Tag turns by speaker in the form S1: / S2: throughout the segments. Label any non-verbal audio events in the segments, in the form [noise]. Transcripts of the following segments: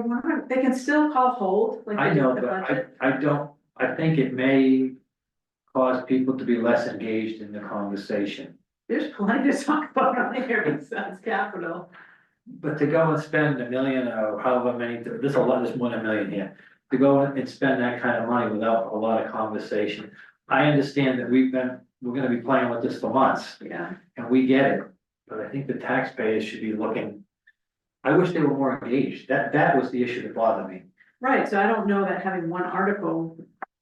S1: can, [laughs] they can still call hold, like
S2: I
S1: they do
S2: know,
S1: with the
S2: but I,
S1: budget.
S2: I don't, I think it may cause people to be less engaged in the conversation.
S1: There's plenty to talk about on here besides capital.
S2: But to go and spend a million or however many, there's a lot, there's more than a million here, to go and spend that kind of money without a lot of conversation. I understand that we've been, we're gonna be playing with this for months,
S1: Yeah,
S2: and we get it, but I think the taxpayers should be looking. I wish they were more engaged, that, that was the issue that bothered me.
S1: right, so I don't know that having one article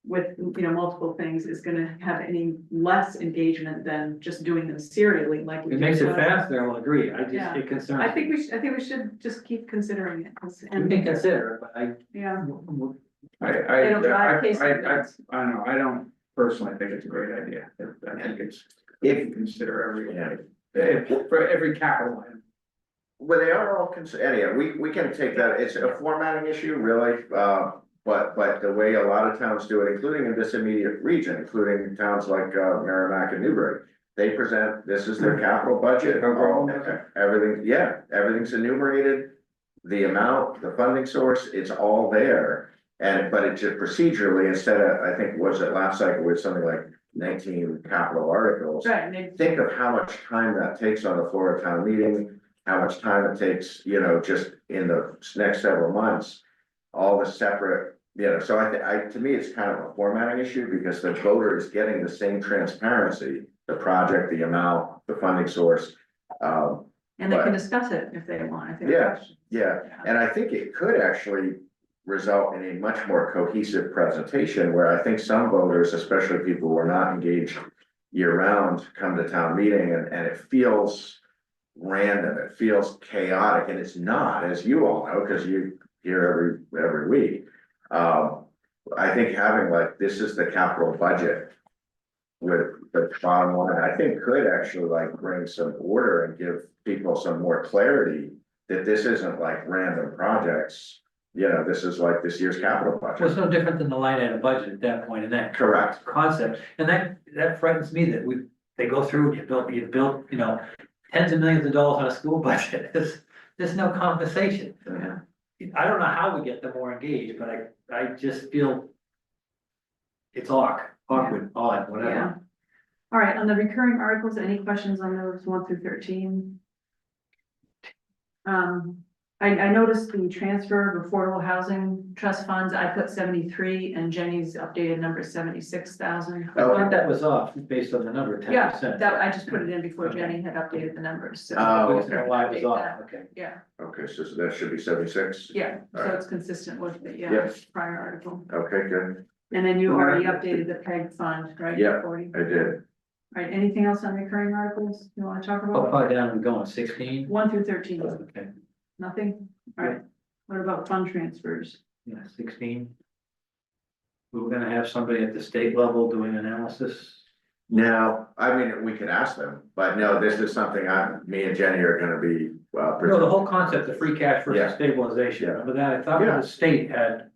S1: with, you know, multiple things is gonna have any less engagement than just doing them serially like. we
S2: It
S1: do
S2: makes it
S1: with-
S2: faster, I will agree, I just,
S1: Yeah.
S2: it concerns.
S1: I
S2: me.
S1: think we should, I think we should just keep considering it. 'cause-
S2: We
S1: and-
S2: can consider it, but I,
S1: Yeah,
S2: w- w-
S3: I,
S1: it'll
S3: I, I,
S1: drive case.
S3: I, I, I don't know, I don't personally think it's a great idea, I- I think it's, if you consider every, if- for every capital item.
S4: Well, they are all considered, anyhow, we, we can take that, it's a formatting issue, really, uh, but, but the way a lot of towns do it, including in this immediate region, including towns like, uh, Merrimack and Newbury. They present, this is their capital budget, all- everything, yeah, everything's enumerated. The amount, the funding source, it's all there, and, but it's just procedurally, instead of, I think, was it last cycle, with something like nineteen capital articles
S1: right, and it-
S4: think of how much time that takes on the floor of town meeting, how much time it takes, you know, just in the next several months. All the separate, you know, so I, thi- I, to me, it's kind of a formatting issue because the voter is getting the same transparency. The project, the amount, the funding source, um,
S1: and they can discuss it if they want, if they have
S4: Yeah.
S1: questions.
S4: yeah, and I think it could actually result in a much more cohesive presentation where I think some voters, especially people who are not engaged year round, come to town meeting and, and it feels random, it feels chaotic, and it's not, as you all know, because you hear every, every week. Um, I think having like, this is the capital budget with the bottom line, I think could actually like bring some order and give people some more clarity that this isn't like random projects, you know, this is like this year's capital
S2: well, it's
S4: budget.
S2: no different than the line item budget at that point, and that
S4: Correct.
S2: concept, and that, that frightens me that we, they go through, you built, you built, you know, tens of millions of dollars on a school [laughs] budget, there's, there's no conversation.
S4: Mhm.
S2: I don't know how we get them more engaged, but I, I just feel it's awk, awkward, odd,
S1: Yeah.
S2: whatever.
S1: All right, on the recurring articles, any questions on those one through thirteen? Um, I, I noticed the transfer of affordable housing trust funds, I put seventy-three and Jenny's updated number is seventy-six thousand.
S4: Oh,
S2: I thought that was off based on the number, ten
S1: Yeah,
S2: percent.
S1: that, I just put it in before Jenny had updated the numbers, so,
S4: Oh,
S2: I just know
S4: okay.
S2: why it was
S1: Update
S2: off,
S1: that.
S2: okay.
S1: yeah,
S4: okay, so that should be seventy-six?
S1: yeah, so
S4: Alright.
S1: it's consistent with the, yeah,
S4: Yes.
S1: prior article.
S4: Okay, good,
S1: And then you already updated the PEG fund, right?
S4: Yeah.
S1: Forty,
S4: I did.
S1: all right, anything else on recurring articles you wanna talk
S2: How
S1: about?
S2: far down are we going, sixteen?
S1: One through thirteen.
S2: Okay,
S1: Nothing? Alright, what about fund transfers?
S2: yeah, sixteen. We were gonna have somebody at the state level doing analysis.
S4: Now, I mean, we could ask them, but no, this is something I, me and Jenny are gonna be, uh,
S2: No, the
S4: presenting.
S2: whole concept of free cash versus
S4: Yeah.
S2: stabilization,
S4: Yeah.
S2: remember that? I thought
S4: Yeah.
S2: the state had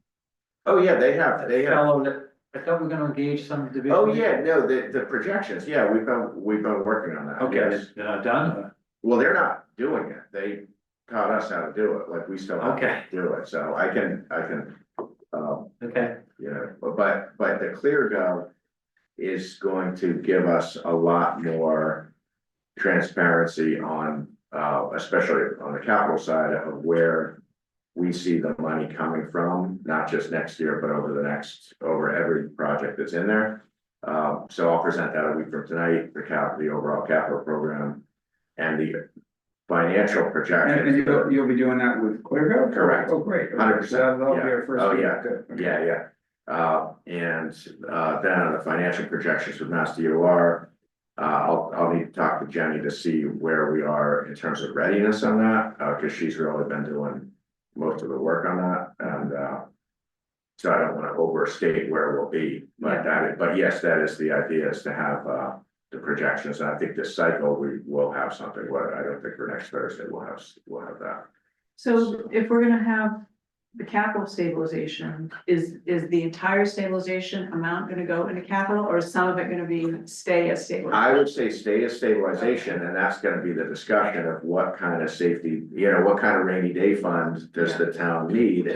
S4: Oh, yeah, they have,
S2: a
S4: they have.
S2: fellow that, I thought we we're gonna engage some division.
S4: Oh, yeah, no, the, the projections, yeah, we've been, we've been working on that.
S2: Okay,
S4: yes.
S2: uh, done, or-
S4: Well, they're not doing it, they taught us how to do it, like, we still have to
S2: okay,
S4: do it, so I can, I can, um,
S2: okay,
S4: you know, but- but, but the clear gov is going to give us a lot more transparency on, uh, especially on the capital side of where we see the money coming from, not just next year, but over the next, over every project that's in there. Um, so I'll present that a week from tonight, the cap, the overall capital program and the financial
S3: And,
S4: projections.
S3: and you'll, you'll be doing that with ClearGov?
S4: Correct.
S3: Oh, great.
S4: 100%,
S3: So That'll be our
S4: yeah.
S3: first.
S4: Oh,
S3: meeting,
S4: yeah.
S3: good, okay.
S4: Yeah, yeah, uh, and, uh, then on the financial projections with Mass DOR. Uh, I'll, I'll need to talk to Jenny to see where we are in terms of readiness on that, uh, cause she's really been doing most of the work on that, and, uh. So I don't wanna overstate where we'll be,
S1: Yeah.
S4: but that, but yes, that is the idea, is to have, uh, the projections, and I think this cycle, we will have something, what, I don't think for next Thursday, we'll have, we'll have that.
S1: So if we're gonna have the capital stabilization, is, is the entire stabilization amount gonna go into capital or is some of it gonna be stay as
S4: I
S1: stabilization?
S4: would say stay as stabilization, and that's gonna be the discussion of what kind of safety, you know, what kind of rainy day fund does the town need?